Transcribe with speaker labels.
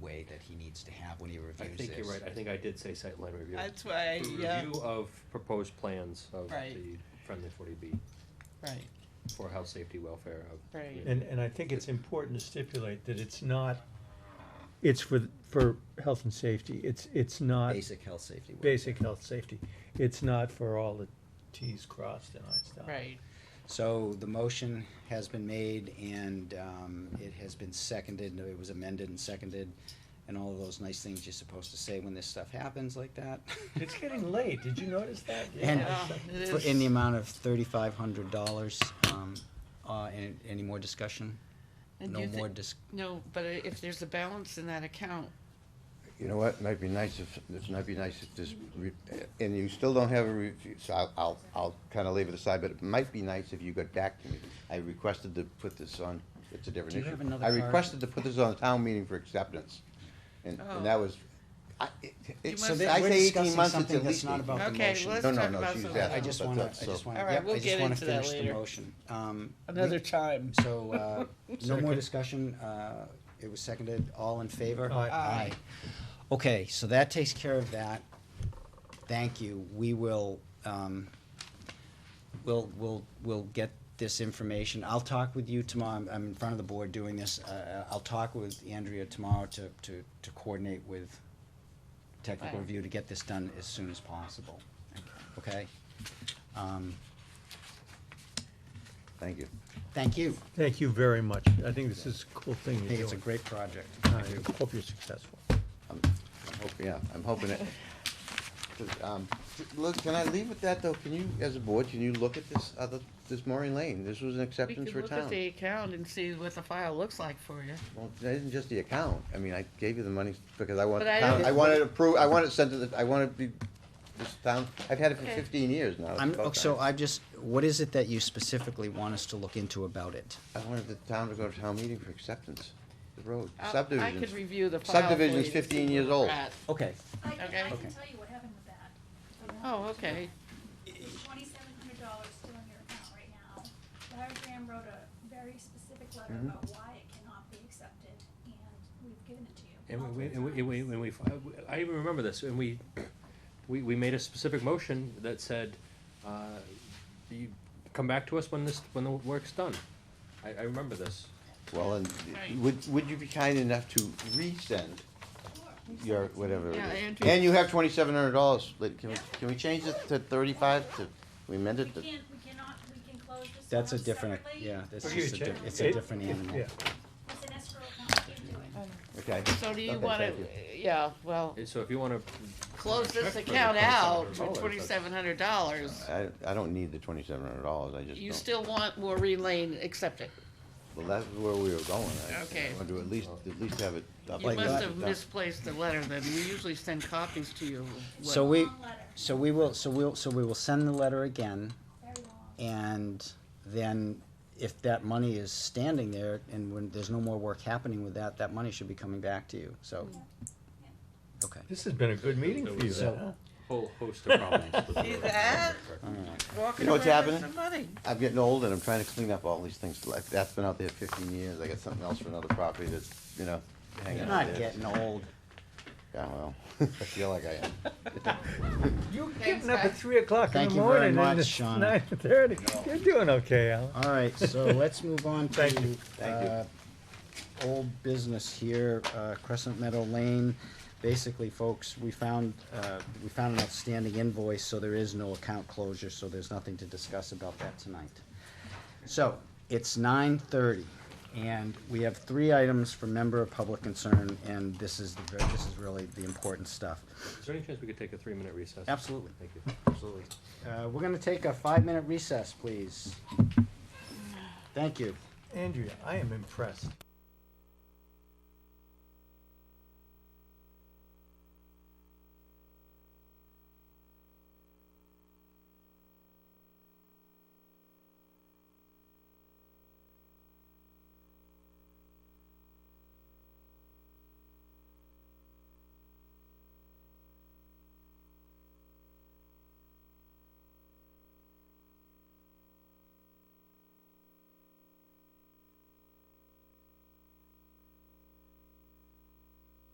Speaker 1: way that he needs to have when he
Speaker 2: I
Speaker 1: reviews this.
Speaker 2: think you're right, I think I did say site line review.
Speaker 3: That's why,
Speaker 2: The
Speaker 3: yeah,
Speaker 2: Review of proposed plans of
Speaker 3: Right.
Speaker 2: the friendly forty B
Speaker 3: right,
Speaker 2: for health, safety, welfare of.
Speaker 3: Right.
Speaker 2: community.
Speaker 4: And, and I think it's important to stipulate that it's not, it's for, for health and safety, it's, it's not
Speaker 1: Basic health, safety. welfare.
Speaker 4: basic health, safety. It's not for all the Ts crossed and Is dotted.
Speaker 3: right.
Speaker 1: So the motion has been made and um, it has been seconded, no, it was amended and seconded, and all of those nice things you're supposed to say when this stuff happens like that.
Speaker 4: It's getting late, did you notice that?
Speaker 1: And
Speaker 3: Yeah, it
Speaker 1: for-
Speaker 3: is.
Speaker 1: in the amount of thirty-five hundred dollars, um, uh, and any more discussion?
Speaker 3: And
Speaker 1: No
Speaker 3: you thi-
Speaker 1: more dis-
Speaker 3: No, but i- if there's a balance in that account,
Speaker 5: You know what, might be nice if, this might be nice if this, re- and you still don't have a review, so I'll, I'll, I'll kind of leave it aside, but it might be nice if you got back to me. I requested to put this on, it's a different
Speaker 1: Do
Speaker 5: issue.
Speaker 1: you have another
Speaker 5: I
Speaker 1: card?
Speaker 5: requested to put this on a town meeting for acceptance, and, and that
Speaker 3: Oh.
Speaker 5: was, I, it,
Speaker 3: You
Speaker 5: it,
Speaker 3: So
Speaker 1: So
Speaker 3: must-
Speaker 5: I
Speaker 1: we're
Speaker 5: say eighteen
Speaker 1: discussing
Speaker 5: months, it's
Speaker 1: something
Speaker 5: at
Speaker 1: that's
Speaker 5: least
Speaker 1: not
Speaker 5: eighteen.
Speaker 1: about the
Speaker 3: Okay,
Speaker 1: motion.
Speaker 3: let's
Speaker 5: No, no,
Speaker 3: talk
Speaker 5: no,
Speaker 3: about
Speaker 5: she's
Speaker 3: some-
Speaker 1: I
Speaker 5: asking.
Speaker 1: just
Speaker 5: but
Speaker 1: wanna,
Speaker 5: that's-
Speaker 1: I
Speaker 5: so-
Speaker 1: just wanna,
Speaker 3: All right,
Speaker 1: yep,
Speaker 3: we'll
Speaker 1: I just
Speaker 3: get
Speaker 1: wanna
Speaker 3: into that
Speaker 1: finish the
Speaker 3: later.
Speaker 1: motion. Um,
Speaker 3: another
Speaker 1: we-
Speaker 3: time.
Speaker 1: So, uh, no more discussion, uh, it was seconded, all in favor?
Speaker 4: Aye.
Speaker 3: Aye.
Speaker 1: Okay, so that takes care of that. Thank you, we will, um, we'll, we'll, we'll get this information. I'll talk with you tomorrow, I'm, I'm in front of the board doing this, uh, I'll talk with Andrea tomorrow to, to, to coordinate with technical
Speaker 3: Right.
Speaker 1: review to get this done as soon as possible, okay? Um,
Speaker 5: Thank you.
Speaker 1: thank you,
Speaker 4: Thank you very much, I think this is a cool thing
Speaker 1: I
Speaker 4: you're
Speaker 1: think
Speaker 4: doing.
Speaker 1: it's a great project.
Speaker 4: I hope you're successful.
Speaker 5: I'm, I'm hoping, yeah, I'm hoping it. 'Cause, um, Look, can I leave with that, though? Can you, as a board, can you look at this other, this Maureen Lane? This was an
Speaker 3: We
Speaker 5: acceptance
Speaker 3: could
Speaker 5: for
Speaker 3: look at
Speaker 5: town.
Speaker 3: the account and see what the file looks like for you.
Speaker 5: Well, that isn't just the account. I mean, I gave you the money because I want,
Speaker 3: But I
Speaker 5: town-
Speaker 3: don't-
Speaker 5: I want it approved, I want it sent to the, I want it be, this town, I've had it for
Speaker 3: Okay.
Speaker 5: fifteen years now. It's
Speaker 1: I'm,
Speaker 5: about
Speaker 1: oh, so
Speaker 5: time.
Speaker 1: I've just, what is it that you specifically want us to look into about it?
Speaker 5: I wanted the town to go to town meeting for acceptance, the road,
Speaker 3: I'll- Uh, I could
Speaker 5: subdivisions.
Speaker 3: review the file. for
Speaker 5: subdivision's
Speaker 3: you to see
Speaker 5: 15
Speaker 3: where
Speaker 5: years
Speaker 3: we're
Speaker 5: old.
Speaker 3: at.
Speaker 1: Okay.
Speaker 6: I, I
Speaker 3: Okay.
Speaker 6: can
Speaker 1: Okay.
Speaker 6: tell you what happened with that.
Speaker 3: Oh, okay.
Speaker 6: Twenty-seven hundred dollars still in your account right now. Larry Graham wrote a very specific letter
Speaker 2: Mm-hmm.
Speaker 6: about why it cannot be accepted, and we've given it to you.
Speaker 2: And we, and
Speaker 6: multiple
Speaker 2: we, and we,
Speaker 6: times.
Speaker 2: and we, I even remember this, and we, we, we made a specific motion that said, uh, you come back to us when this, when the work's done. I, I remember this.
Speaker 5: Well, and
Speaker 3: Right.
Speaker 5: would, would you be kind enough to resend
Speaker 6: Sure.
Speaker 5: your, whatever it
Speaker 3: Yeah,
Speaker 5: is.
Speaker 3: Andrew.
Speaker 5: And you have twenty-seven hundred dollars, like, can we, can we change it to thirty-five to, we amend
Speaker 6: We
Speaker 5: it to?
Speaker 6: can't, we cannot, we can close this one
Speaker 1: That's a
Speaker 6: up
Speaker 1: different,
Speaker 6: Um, separately.
Speaker 1: yeah, this
Speaker 6: That's
Speaker 1: is a,
Speaker 6: an
Speaker 1: di-
Speaker 4: Huge.
Speaker 1: it's a
Speaker 4: It-
Speaker 1: different
Speaker 4: it-
Speaker 1: animal.
Speaker 4: yeah.
Speaker 6: It's an escrow account, you can't do it.
Speaker 5: Okay.
Speaker 3: So do you
Speaker 5: Okay,
Speaker 3: wanna,
Speaker 5: thank you.
Speaker 3: yeah, well,
Speaker 2: And so if you wanna.
Speaker 3: close
Speaker 2: check
Speaker 3: this
Speaker 2: for the
Speaker 3: account out
Speaker 2: $2,700,
Speaker 3: for
Speaker 2: that's-
Speaker 3: twenty-seven hundred dollars.
Speaker 5: I, I don't need the twenty-seven hundred dollars, I just
Speaker 3: You
Speaker 5: don't-
Speaker 3: still want Maureen Lane accepted.
Speaker 5: Well, that's where we were going. I-
Speaker 3: Okay.
Speaker 5: I wanted to at least, at least have it. up
Speaker 3: You
Speaker 5: like
Speaker 3: must
Speaker 5: that.
Speaker 3: have misplaced the letter then. We usually send copies to you. of
Speaker 1: So
Speaker 3: what-
Speaker 1: we,
Speaker 6: Long letter,
Speaker 1: so we will, so we'll, so we will send the letter again,
Speaker 6: very long.
Speaker 1: and then if that money is standing there, and when there's no more work happening with that, that money should be coming back to you, so. Okay,
Speaker 4: This has been a good meeting for you,
Speaker 1: So-
Speaker 4: huh?
Speaker 2: Whole host of problems.
Speaker 3: See that?
Speaker 1: all right.
Speaker 3: Walking
Speaker 5: You know what's
Speaker 3: around with
Speaker 5: happening?
Speaker 3: some money.
Speaker 5: I'm getting old and I'm trying to clean up all these things. Like, that's been out there fifteen years. I got something else for another property that's, you know, hanging
Speaker 1: You're
Speaker 5: out
Speaker 1: not
Speaker 5: there.
Speaker 1: getting old.
Speaker 5: Yeah, well, I feel like I am.
Speaker 4: You're
Speaker 3: Thanks,
Speaker 4: getting up at
Speaker 3: guys.
Speaker 4: three o'clock in
Speaker 1: Thank
Speaker 4: the
Speaker 1: you very
Speaker 4: morning
Speaker 1: much,
Speaker 4: and it's
Speaker 1: Sean.
Speaker 4: nine thirty. You're doing okay, Alan.
Speaker 1: All right, so let's move on to.
Speaker 4: Thank you.
Speaker 5: Thank you.
Speaker 1: uh, Old business here, uh, Crescent Meadow Lane. Basically, folks, we found, uh, we found an outstanding invoice, so there is no account closure, so there's nothing to discuss about that tonight. So, it's nine thirty, and we have three items for member of public concern, and this is the, ver- this is really the important stuff.
Speaker 2: Is there any chance we could take a three-minute recess?
Speaker 1: Absolutely.
Speaker 2: Thank you.
Speaker 1: Absolutely. Uh, we're gonna take a five-minute recess, please. Thank you.
Speaker 4: Andrea, I am impressed.